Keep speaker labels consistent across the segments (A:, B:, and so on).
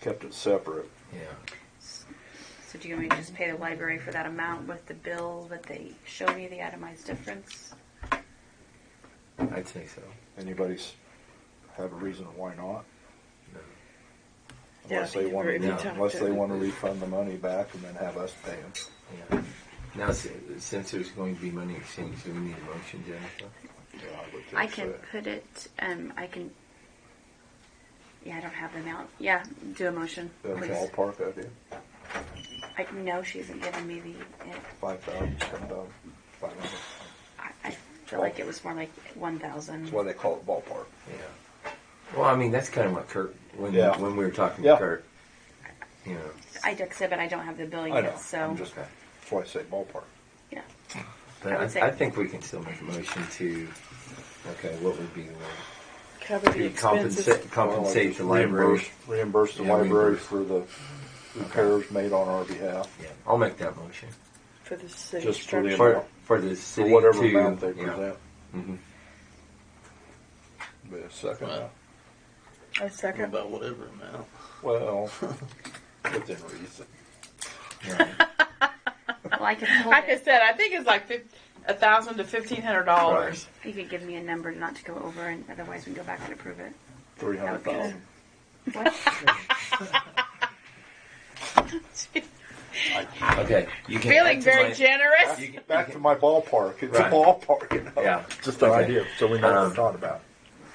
A: kept it separate.
B: Yeah.
C: So do you want me to just pay the library for that amount with the bill that they show me the itemized difference?
B: I'd say so.
A: Anybody's have a reason why not?
B: No.
D: Yeah,
A: Unless
D: if
A: they
D: you-
A: want
D: if
B: you
A: to,
B: talk
A: unless
D: to
A: they
D: them.
A: want to refund the money back and then have us pay them.
B: Yeah. Now, s- since there's going to be money exchange, do we need a motion, Jennifer?
A: Yeah, would think
C: I can
A: so.
C: put it, um, I can, yeah, I don't have the amount. Yeah, do a motion,
A: The
C: please.
A: ballpark idea,
C: I, no, she hasn't given me the, it-
A: five thousand, ten thousand, five hundred.
C: I, I feel like it was more like one thousand.
A: That's why they call it ballpark.
B: Yeah. Well, I mean, that's kind of what Kurt, when,
A: Yeah.
B: when we were talking
A: Yeah.
B: to Kurt, you know.
C: I did say, but I don't have the bill
A: I know,
C: yet, so,
A: I'm just, that's why I say ballpark.
C: yeah.
B: But
C: I
B: I,
C: would say-
B: I think we can still make a motion to, okay, what would be the word?
D: Cover the
B: To
D: expenses.
B: Compensate, compensate the library.
A: Reimburse- Reimburse the
B: Yeah,
A: library
B: reimburse.
A: for the repairs made on our behalf.
B: Yeah, I'll make that motion.
D: For the city
A: Just for the-
D: structure.
B: For, for the city
A: For whatever
B: to-
A: amount they
B: yeah.
A: present.
B: Mhm.
A: Be a second uh,
E: Wow.
A: now.
D: I second.
E: About whatever amount.
A: Well, within reason.
B: Yeah.
C: Well, I can hold
F: Like I
C: it.
F: said, I think it's like fif- a thousand to fifteen hundred dollars.
C: You could give me a number not to go over, and otherwise we can go back and approve it.
A: Three hundred thousand.
C: What?
B: Okay, you can add
F: Feeling
B: to
F: very
B: my-
F: generous.
B: You can-
A: Back to my ballpark. It's
B: Right.
A: a ballpark, you know.
B: Yeah.
A: Just an
B: Okay.
A: idea, so we know what
B: Um,
A: we're talking about.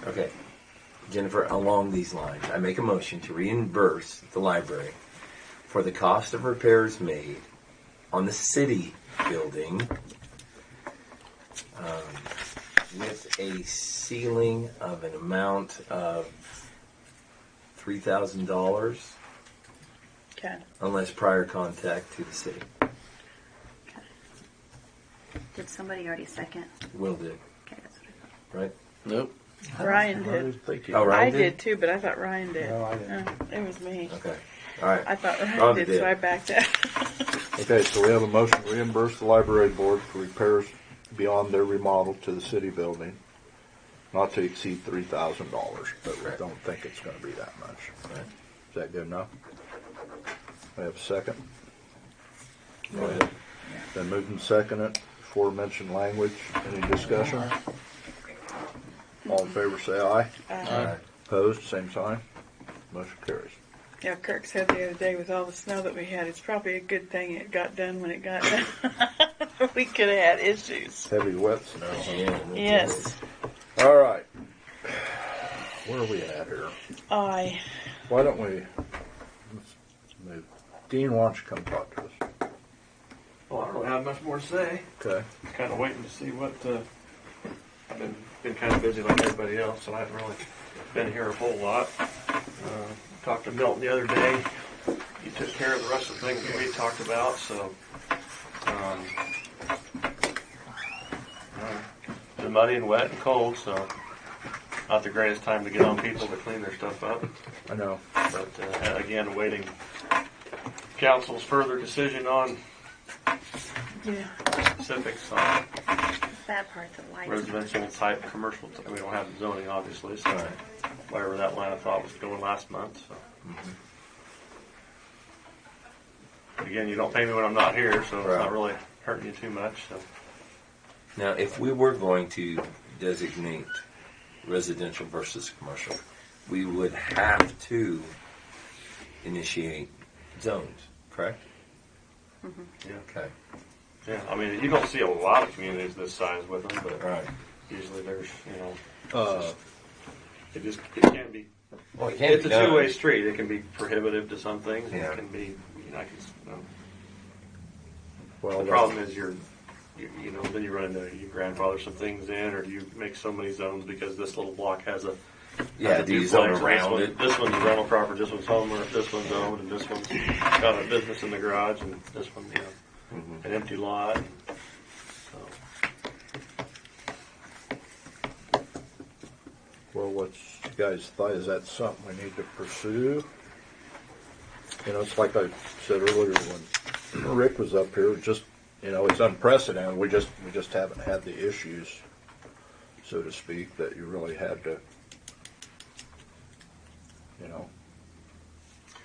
B: Okay. Jennifer, along these lines, I make a motion to reimburse the library for the cost of repairs made on the city building um, with a ceiling of an amount of $3,000
D: Okay.
B: unless prior contact to the city.
C: Did somebody already second?
B: Will do,
C: Okay, that's what I thought.
B: right?
E: Nope.
D: Ryan did.
A: Thank
B: Oh, Ryan
D: I
B: did?
D: did too, but I thought Ryan did.
A: No, I didn't.
D: No, it was me.
B: Okay. All right.
D: I thought Ryan
B: Rhonda
D: did,
B: did.
D: so I backed out.
A: Okay, so we have a motion to reimburse the library board for repairs beyond their remodel to the city building, not to exceed three thousand dollars, but we
B: Correct.
A: don't think it's gonna be that much.
B: All right.
A: Is that good enough? I have a second.
B: Go ahead.
A: Then moved and seconded, aforementioned language, any discussion? All in favor, say aye.
B: All right.
A: Opposed, same sign. Motion carries.
D: Yeah, Kirk said the other day with all the snow that we had, it's probably a good thing it got done when it got done. we could have had issues.
A: Heavy wet snow.
B: Yeah, that's
D: Yes.
A: All right. Where are we at here?
D: I.
A: Why don't we let's move? Dean, why don't you come talk to us?
G: Well, I don't really have much more to say.
A: Okay.
G: Kind of waiting to see what. Uh, I've been been kind of busy like everybody else, and I haven't really been here a whole lot. Uh, talked to Milton the other day. He took care of the rest of the things we talked about, so. Um, uh, been muddy and wet and cold, so not the greatest time to get on people to clean their stuff up.
A: I know.
G: But uh, again, awaiting council's further decision on
D: Yeah.
G: specifics on
C: That part, the lights.
G: residential type commercial, type. we don't have zoning obviously, so
B: All right.
G: wherever that line of thought was going last month, so. Again, you don't pay me when I'm not here, so it's
B: Mm-hmm. Right.
G: not really hurting you too much, so.
B: Now, if we were going to designate residential versus commercial, we would have to initiate zones, correct?
G: Yeah.
B: Okay,
G: Yeah, I mean, you don't see a lot of communities this size with them,
B: all
G: but
B: right.
G: usually there's, you know,
A: Uh,
G: it just, it can be,
B: Well, it can't
G: it's
B: be
G: a
B: done.
G: two-way street, it can be prohibitive to some things, and
B: Yeah.
G: it can be, you know, I can, s- you know,
A: well,
G: The
A: that's-
G: problem is you're, you, you know, then you run into, you grandfather some things in, or you make so many zones because this little block has a.
B: Yeah,
G: has a
B: do you zone
G: duplex, and this
B: around
G: one-
B: it?
G: This one's rental property, this one's homeowner, this one's owned, and this one's got a business in the garage, and this one, you know,
B: Mhm.
G: an empty lot. and so.
A: Well, what's you guys' thought? Is that something we need to pursue? You know, it's like I said earlier when Rick was up here. Just you know, it's unprecedented. We just we just haven't had the issues, so to speak, that you really had to. You know,